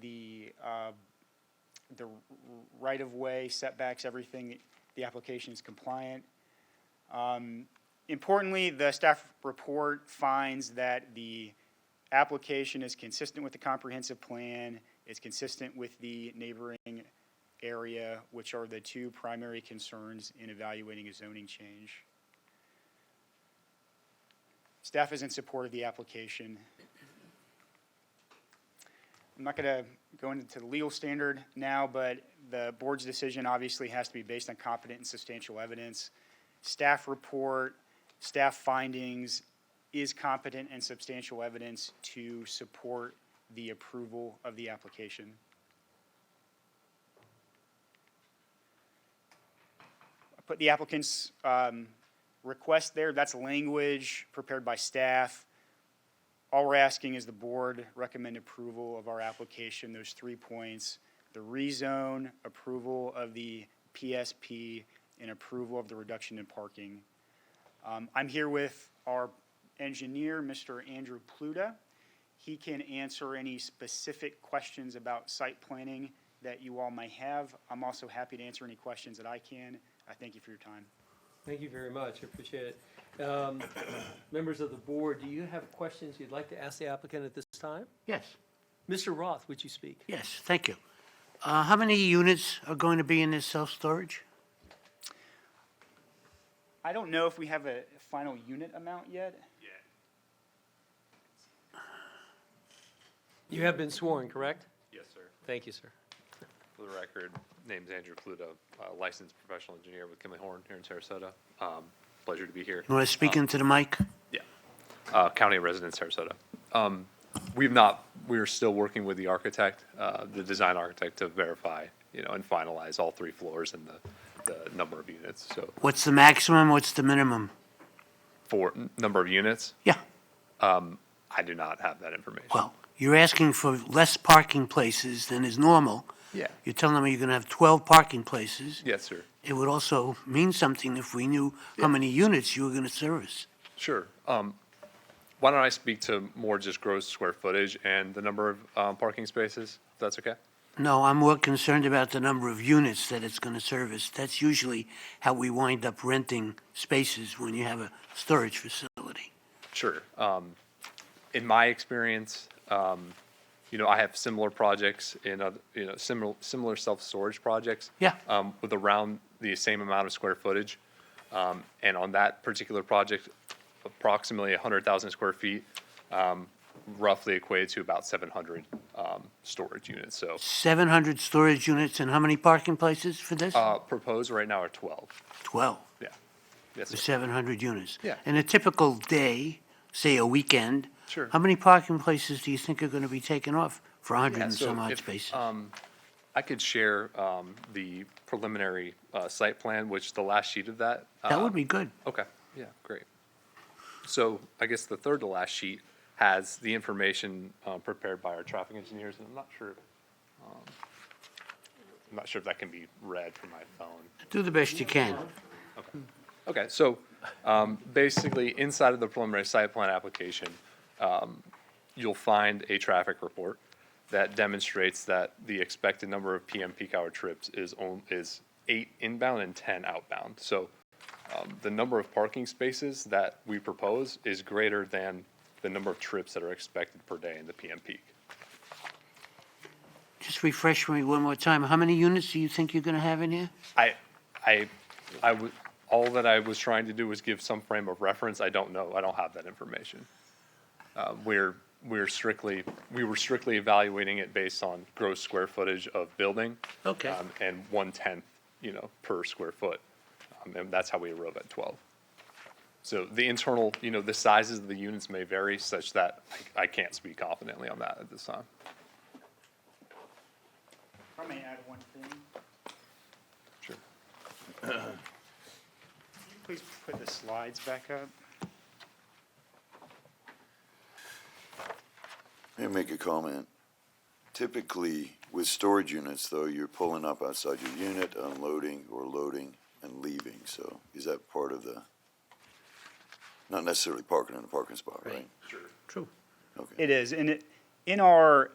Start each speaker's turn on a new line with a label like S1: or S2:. S1: the, uh, the right-of-way setbacks, everything, the application is compliant. Um, Importantly, the staff report finds that the application is consistent with the comprehensive plan, is consistent with the neighboring area, which are the two primary concerns in evaluating a zoning change. Staff is in support of the application. I'm not going to go into the legal standard now, but the board's decision obviously has to be based on competent and substantial evidence. Staff report, staff findings, is competent and substantial evidence to support the approval of the application. I Put the applicant's um, request there, that's language prepared by staff. All we're asking is the board recommend approval of our application, those three points, the rezone, approval of the PSP, and approval of the reduction in parking. Um, I'm here with our engineer, Mr. Andrew Pluta. He can answer any specific questions about site planning that you all may have. I'm also happy to answer any questions that I can. I thank you for your time.
S2: Thank you very much, I appreciate it. Um, Members of the board, do you have questions you'd like to ask the applicant at this time?
S3: Yes,
S2: Mr. Roth, would you speak?
S3: yes, thank you. Uh, How many units are going to be in this self-storage?
S1: I don't know if we have a final unit amount yet.
S2: You have been sworn, correct?
S4: Yes, sir.
S2: Thank you, sir.
S4: For the record, name's Andrew Pluto, uh, licensed professional engineer with Kim and Horn here in Sarasota. Um, Pleasure to be here.
S3: You want to speak into the mic?
S4: Yeah. Uh, County resident, Sarasota. Um, We've not, we're still working with the architect, uh, the design architect to verify, you know, and finalize all three floors and the, the number of units. So
S3: What's the maximum, what's the minimum?
S4: for n- number of units,
S3: Yeah,
S4: I do not have that information.
S3: well, you're asking for less parking places than is normal.
S4: Yeah.
S3: You're telling me you're going to have 12 parking places.
S4: Yes, sir.
S3: It would also mean something if we knew how many units you were going to service.
S4: Sure. Um, Why don't I speak to more just gross square footage and the number of um, parking spaces, if that's okay?
S3: No, I'm more concerned about the number of units that it's going to service. That's usually how we wind up renting spaces when you have a storage facility.
S4: Sure. Um, in my experience, um, you know, I have similar projects in other, you know, similar, similar self-storage projects.
S3: Yeah.
S4: Um, with around the same amount of square footage. Um, and on that particular project, approximately hundred thousand square feet, um, roughly equated to about seven hundred, um, storage units. So,
S3: 700 storage units and how many parking places for this?
S4: uh, proposed right now are twelve.
S3: 12,
S4: Yeah. Yes,
S3: for
S4: sir.
S3: 700 units.
S4: Yeah.
S3: In a typical day, say a weekend.
S4: Sure.
S3: How many parking places do you think are going to be taken off for 100
S4: Yeah,
S3: and
S4: so
S3: some odd
S4: if,
S3: spaces?
S4: um, I could share, um, the preliminary, uh, site plan, which the last sheet of that.
S3: That
S4: um,
S3: would be good.
S4: Okay, yeah, great. So I guess the third to last sheet has the information uh, prepared by our traffic engineers, and I'm not sure, um, I'm not sure if that can be read from my phone.
S3: Do the best you can.
S4: Okay, so um, basically, inside of the preliminary site plan application, um, you'll find a traffic report that demonstrates that the expected number of PM peak hour trips is on, is eight inbound and 10 outbound. So um, the number of parking spaces that we propose is greater than the number of trips that are expected per day in the PM peak.
S3: Just refresh me one more time. How many units do you think you're going to have in here?
S4: I, I, I would, all that I was trying to do was give some frame of reference. I don't know. I don't have that information. Uh, we're, we're strictly, we were strictly evaluating it based on gross square footage of building.
S3: Okay.
S4: um, And one-tenth, you know, per square foot. Um, And that's how we arrive at twelve. So the internal, you know, the sizes of the units may vary such that I, I can't speak confidently on that at this time.
S1: If I may add one thing.
S4: Sure.
S1: Please put the slides back up.
S5: May I make a comment? Typically, with storage units, though, you're pulling up outside your unit, unloading or loading and leaving, so is that part of the? Not necessarily parking in a parking spot, right?
S3: True.
S5: Okay.
S1: It is, and it, in our